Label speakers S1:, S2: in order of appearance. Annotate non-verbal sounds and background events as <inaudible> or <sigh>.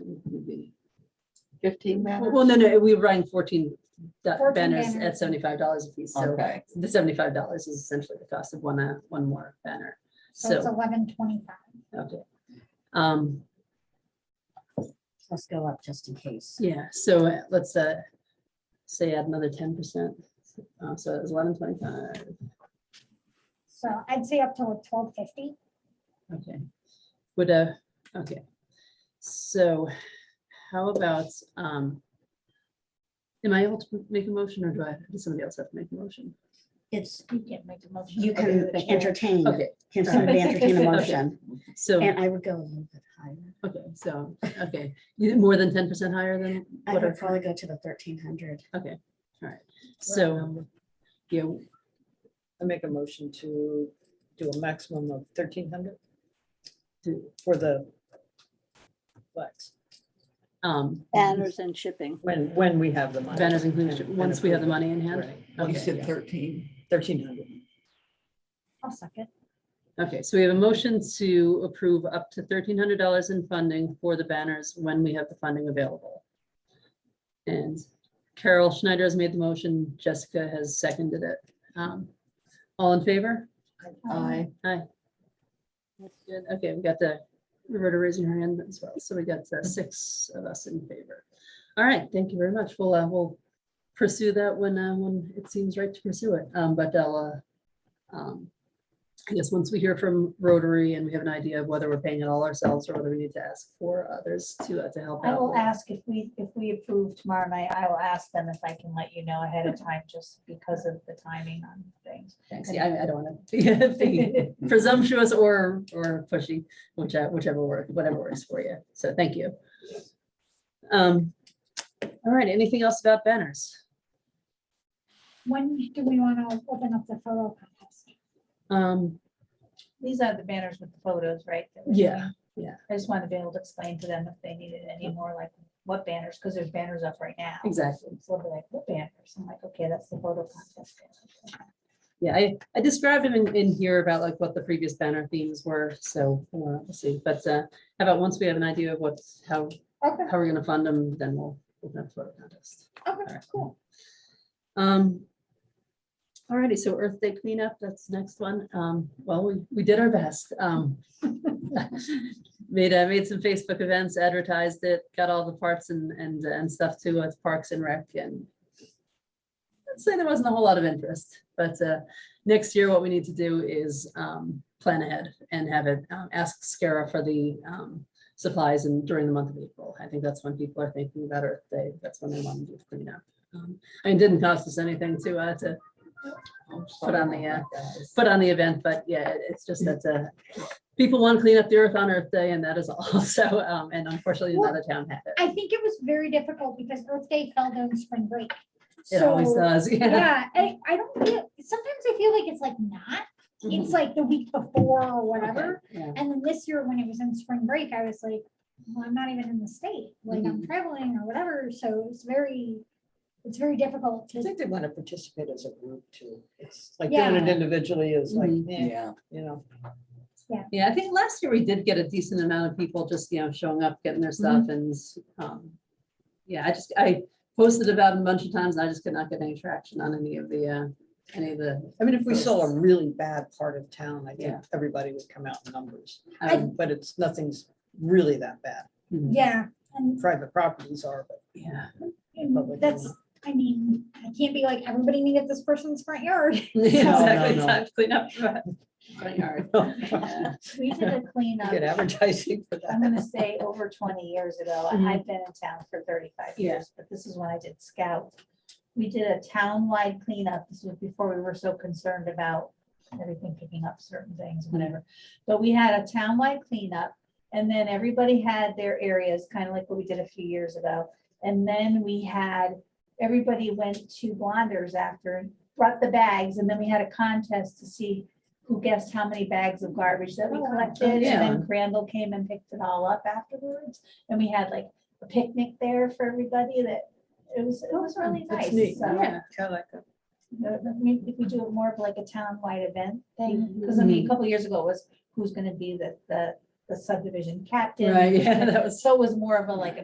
S1: would be fifteen
S2: Well,
S1: banners?
S2: no, no, we run fourteen da-
S3: 14
S2: banners at
S3: banners.
S2: seventy-five dollars a piece, so
S1: Okay,
S2: the seventy-five dollars is essentially the cost of one, uh, one more banner,
S3: So it's
S2: so,
S3: eleven twenty-five.
S2: okay. Um,
S4: Let's go up just in case.
S2: yeah, so uh, let's, uh, say add another ten percent, uh, so it's eleven twenty-five,
S3: So I'd say up to twelve fifty.
S2: okay. Would, uh, okay, so how about, um, am I able to make a motion, or do I, does somebody else have to make a motion?
S4: It's,
S3: You can't make a motion.
S4: you can
S3: Okay.
S4: entertain,
S2: Okay,
S4: can somebody entertain a
S2: Okay.
S3: <laughs>
S4: motion?
S2: so.
S4: And I would go a little bit higher.
S2: Okay, so, okay, you- more than ten percent higher than
S4: I
S2: what
S4: would
S2: our,
S4: probably go to the thirteen hundred.
S2: okay, all right. So, yeah,
S5: um, I make a motion to do a maximum of thirteen hundred
S2: do,
S5: for the flex,
S2: um,
S6: Banners and shipping.
S5: when, when we have the money.
S2: banners included, once we have the money in hand.
S1: you
S2: Okay,
S1: said thirteen.
S5: Thirteen hundred.
S3: I'll suck it.
S2: okay, so we have a motion to approve up to thirteen hundred dollars in funding for the banners when we have the funding available. And Carol Schneider has made the motion, Jessica has seconded it. Um, All in favor?
S3: Um,
S1: I,
S2: That's good. Okay, we got the, Roberta raising her hand as well. So we got uh, six of us in favor. All right, thank you very much. We'll, uh, we'll pursue that when, uh, when it seems right to pursue it. Um, but I'll, uh, um, I guess once we hear from Rotary and we have an idea of whether we're paying it all ourselves or whether we need to ask for others to, uh, to help
S7: I
S2: out.
S7: will
S2: we'll-
S7: ask if we, if we approve tomorrow night, I will ask them if I can let you
S2: <laughs>
S7: know ahead of time, just because of the timing on things.
S2: Thanks. Yeah, I, I don't want to <laughs> be <laughs> presumptuous or, or pushy, whichever, whichever work, whatever works for you. So thank you. Um, all right, anything else about banners?
S3: When do we want to open up the photo contest?
S2: Um,
S7: <laughs> These are the banners with the photos, right? that we're
S2: Yeah,
S7: doing.
S2: yeah.
S7: I just wanted to be able to explain to them if they needed any more, like, what banners, because there's banners up right now.
S2: Exactly.
S7: So they're like, what banners? I'm like, okay, that's the photo contest.
S2: <laughs>
S7: banner.
S2: yeah, I, I described them in, in here about like what the previous banner themes were, so uh, we'll see. But uh, how about once we have an idea of what's, how,
S3: Okay,
S2: how we're gonna fund them, then we'll, we'll have photo contest.
S3: okay, cool.
S2: Um. Alrighty, so Earth Day cleanup, that's the next one. Um, well, we, we did our best. Um. <laughs> Made, I made some Facebook events, advertised it, got all the parts and, and, and stuff to uh, Parks and Rec and. I'd say there wasn't a whole lot of interest, but, uh, next year, what we need to do is, um, plan ahead and have it, um, ask Scara for the, um. Supplies and during the month of April. I think that's when people are thinking about Earth Day. That's when they want to do the cleanup. Um, and it didn't cost us anything to, uh, to
S1: I'm
S2: Put on
S1: sorry
S2: the, uh,
S1: about that.
S2: put on the event, but yeah, it- it's just that, uh, people want to clean up the earth on Earth Day and that is all. <laughs> So, um, and unfortunately, another town had it.
S3: I think it was very difficult because Earth Day fell during spring break.
S2: It always
S3: So,
S2: does, <laughs> yeah.
S3: yeah, I, I don't feel, sometimes I feel like it's like not, it's like the week before or whatever.
S2: Yeah.
S3: And then this year, when it was in spring break, I was like, well, I'm not even in the state, like I'm traveling or whatever, so it's very, it's very difficult
S5: I
S3: to,
S5: think they want to participate as a group too. It's like doing it individually is like,
S2: Mhm.
S5: eh,
S1: Yeah,
S5: you know.
S2: Yeah, I think last year we did get a decent amount of people just, you know, showing up, getting their stuff and, um, yeah, I just, I posted about it a bunch of times. and I just could not get any traction on any of the, uh, any of the,
S5: I mean, if we saw a
S2: Yes.
S5: really bad part of town, I think
S2: Yeah.
S5: everybody would come out in numbers.
S3: I-
S2: um,
S5: But it's, nothing's really that bad.
S2: hmm,
S3: yeah. And
S5: Private properties are, but <laughs>
S2: yeah.
S5: Public
S3: and that's, I mean, I can't be like, everybody need at this person's front yard.
S2: <laughs> Exactly,
S5: no.
S2: time to clean up. Front <laughs> yard. Yeah.
S7: We did a cleanup,
S5: get advertising for that.
S7: <laughs> I'm gonna say over twenty years ago, I-
S2: Mhm.
S7: I've been in town for thirty-five
S2: Yeah.
S7: years, but this is when I did scout. We did a town-wide cleanup, this was before we were so concerned about everything picking up certain things, whatever. But we had a town-wide cleanup, and then everybody had their areas, kind of like what we did a few years ago. And then we had, everybody went to Blonders after, and brought the bags, and then we had a contest to see who guessed how many bags of garbage that we collected, and
S2: yeah.
S7: then Crandall came and picked it all up afterwards. And we had like a picnic there for everybody that, it was, it was really
S5: That's
S7: nice.
S5: neat.
S7: So,
S2: Yeah.
S5: Kind of like that.
S7: uh, I mean, if we do it more of like a town-wide event thing, because I mean, a couple years ago it was who's gonna be the, the, the subdivision captain.
S2: Right, yeah, that was-
S7: So it was more of a like a